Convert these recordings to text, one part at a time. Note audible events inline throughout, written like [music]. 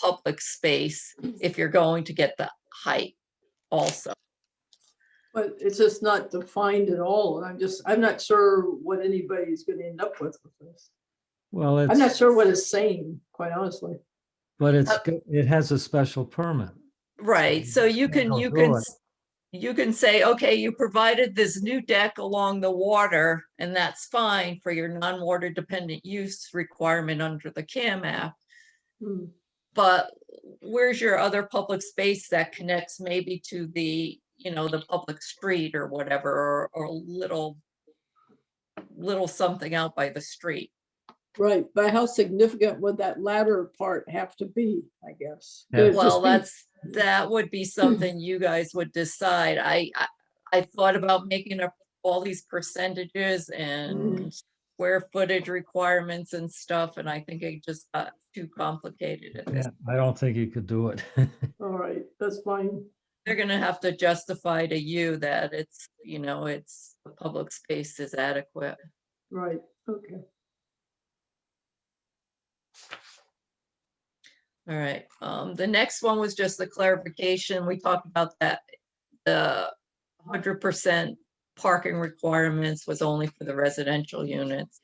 public space if you're going to get the height also. But it's just not defined at all, and I'm just, I'm not sure what anybody's gonna end up with with this. Well, I'm not it's, sure what it's saying, quite honestly. but it's, Uh, go- it has a special permit. Right, so you can, They'll you do can, it. s- you can say, okay, you provided this new deck along the water, and that's fine for your non-water dependent use requirement under the CAM app. Hmm. But where's your other public space that connects maybe to the, you know, the public street or whatever, or, or a little, little something out by the street? Right, but how significant would that latter part have to be, I guess? Could Yeah. it just Well, be- that's, that would be something you guys would decide. I, I, I thought about making up all these percentages and Mm. square footage requirements and stuff, and I think it just got too complicated at this. I don't think you could do it. [laughs] All right, that's fine. They're gonna have to justify to you that it's, you know, it's, the public space is adequate. Right, okay. All right, um, the next one was just the clarification. We talked about that. The hundred percent parking requirements was only for the residential units,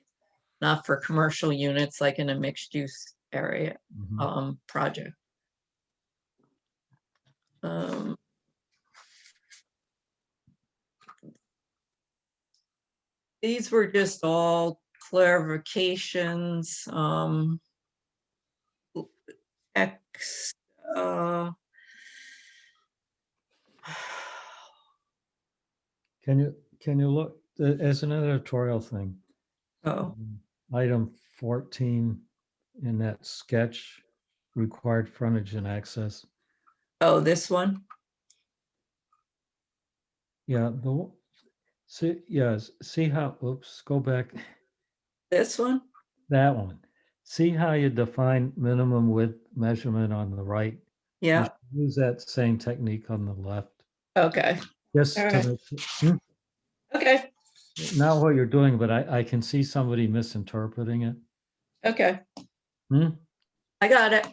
not for commercial units like in a mixed use area, Mhm. um, project. Um, These were just all clarifications, um. l- X, uh. [sighs] Can you, can you look, uh, as an editorial thing, Oh, um, item fourteen in that sketch, required frontage and access. oh, this one, Yeah, the, w- see, yes, see how, oops, go back, [laughs] this one? that one. See how you define minimum width measurement on the right? Yeah, Use that same technique on the left. okay, Just All to right. make su- hmm, okay, not what you're doing, but I, I can see somebody misinterpreting it. okay, hmm, I got it.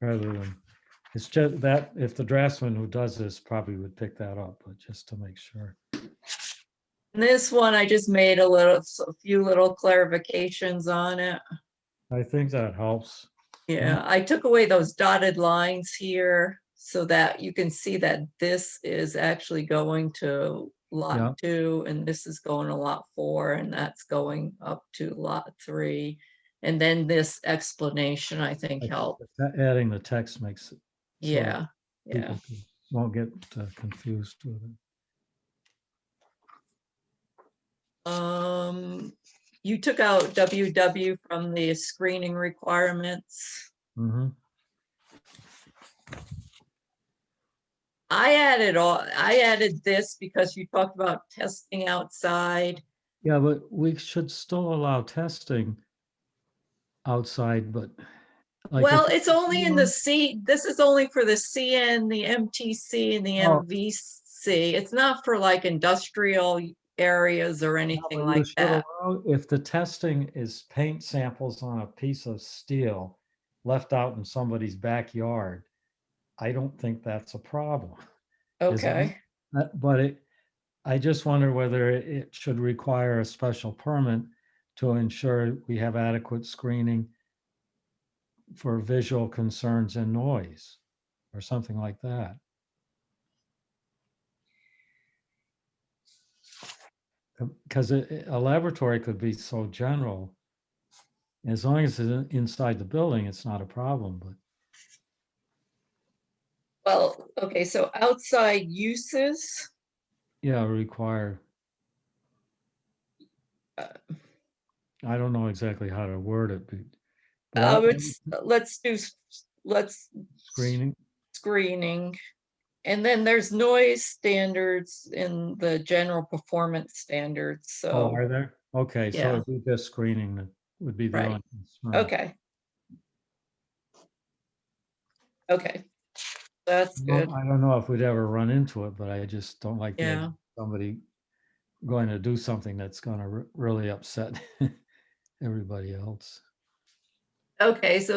Rather than, it's just that, if the draftsman who does this probably would pick that up, but just to make sure. And This one, I just made a little, s- a few little clarifications on it. I think that helps. Yeah, Mm-hmm. I took away those dotted lines here so that you can see that this is actually going to Yeah. lot two and this is going to lot four and that's going up to lot three. And then this explanation, I think, Like, helped. a- Adding the text makes it. so Yeah, yeah. people c- Won't get uh, confused with it. Mm-hmm. Um, you took out WW from the screening requirements. Mhm. I added all, I added this because you talked about testing outside. Yeah, but we should still allow testing outside, but. like, if Well, you- it's only in the C, this is only for the CN, the MTC and the Oh. MVC. It's not for like industrial areas or anything Well, you like should that. allow- If the testing is paint samples on a piece of steel left out in somebody's backyard, I don't think that's a problem. is it? Okay, Uh, But it, I just wonder whether it should require a special permit to ensure we have adequate screening for visual concerns and noise, or something like that. Because Um, a laboratory could be so general. As long as it's in- inside the building, it's not a problem, but well, okay, so outside uses, Yeah, require. Uh, I don't know exactly how to word it. but- but I I'll- would, s- let's do, s- let's Screening, screening. And then there's noise standards in the general performance standards, so. oh, are there? Okay, yeah. so it'd be just screening that would be the Right. only concern. Okay. Okay, that's I don't- good. I don't know if we'd ever run into it, but I just don't like the idea Yeah. of somebody going to do something that's [laughs] gonna re- really upset everybody else. Okay, so